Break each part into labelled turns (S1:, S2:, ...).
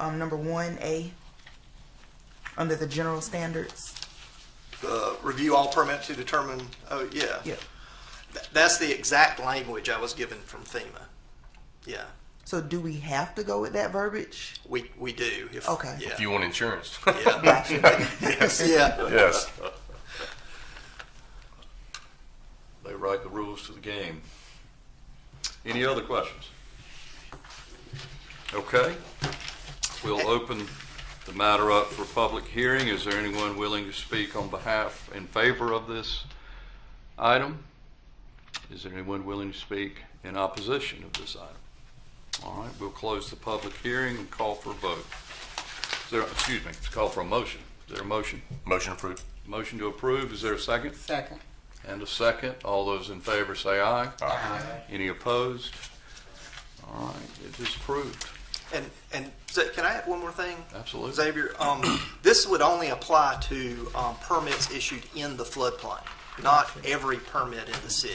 S1: um, number one A, under the general standards.
S2: uh, review all permits to determine, oh, yeah.
S1: Yeah.
S2: Th- That's the exact language I was given from FEMA. Yeah,
S1: So do we have to go with that verbiage?
S2: we, we do. if-
S1: Okay.
S2: Yeah.
S3: If you want insurance.
S2: Yeah.
S1: Gotcha.
S2: Yeah.
S3: yes.
S4: They write the rules to the game. Any other questions? Okay, we'll open the matter up for public hearing. Is there anyone willing to speak on behalf, in favor of this item? Is there anyone willing to speak in opposition of this item? All right, we'll close the public hearing and call for a vote. Is there, excuse me, call for a motion. Is there a motion?
S3: Motion approved.
S4: Motion to approve, is there a second?
S5: Second.
S4: And a second. All those in favor say aye. Aye. Any opposed? All right, it is approved.
S2: And, and so can I add one more thing?
S4: Absolutely.
S2: Xavier, um, this would only apply to, um, permits issued in the floodplain, not every permit in the city.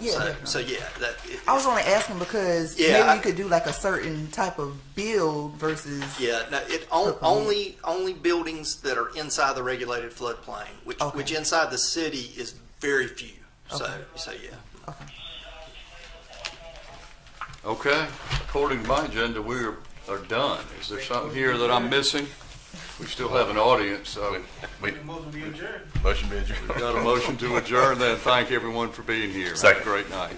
S1: Yeah.
S2: So, so yeah, that. it-
S1: I was only asking because
S2: Yeah,
S1: maybe
S2: I-
S1: you could do like a certain type of build versus
S2: Yeah, no, it, on- only, only buildings that are inside the regulated floodplain, which,
S1: Okay.
S2: which inside the city is very few. So, so yeah.
S4: Okay, according to my agenda, we are are done. Is there something here that I'm missing? We still have an audience, so
S3: We,
S6: Motion to adjourn.
S3: motion be adjourned.
S4: got a motion to adjourn then. Thank everyone for being here. Have a
S3: Second.
S4: Great night.